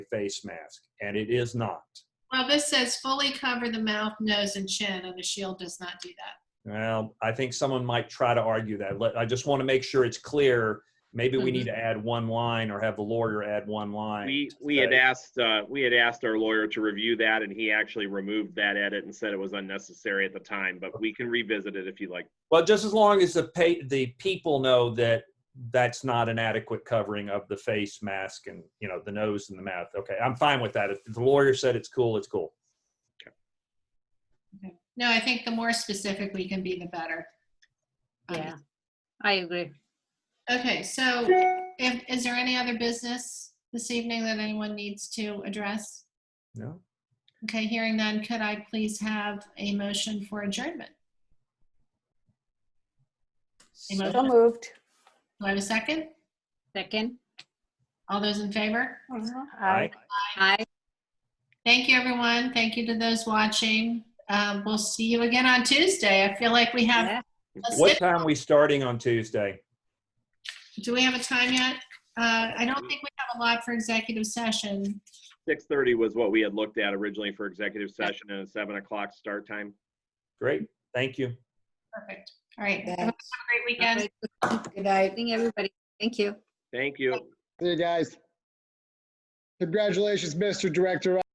face mask, and it is not. Well, this says fully cover the mouth, nose, and chin, and the shield does not do that. Well, I think someone might try to argue that. Let, I just want to make sure it's clear. Maybe we Mhm. need to add one line or have the lawyer add one line. Mm-hmm. We, to we had say- asked, uh, we had asked our lawyer to review that and he actually removed that edit and said it was unnecessary at the time, but we can revisit it if you'd like. Well, just as long as the pa- the people know that that's not an adequate covering of the face mask and, you know, the nose and the mouth. Okay, I'm fine with that. If the lawyer said it's cool, it's cool. No, I think the more specific we can be, the better. Um, Yeah, I agree. Okay, so if, is there any other business this evening that anyone needs to address? No? Okay, hearing none, could I please have a motion for adjournment? A motion? So moved. Do I have a second? Second, All those in favor? Aye. aye. Thank you, everyone. Thank you to those watching. Um, We'll see you again on Tuesday. I feel like we have, Yeah. a What sit- time are we starting on Tuesday? do we have a time yet? Uh, I don't think we have a lot for executive session. Six thirty was what we had looked at originally for executive session and a seven o'clock start time. Great, thank you. Perfect. All right. Have a Thanks. great weekend. Good night. Thank everybody. Thank you. Thank you. Hey, guys. Congratulations, Mr. Director.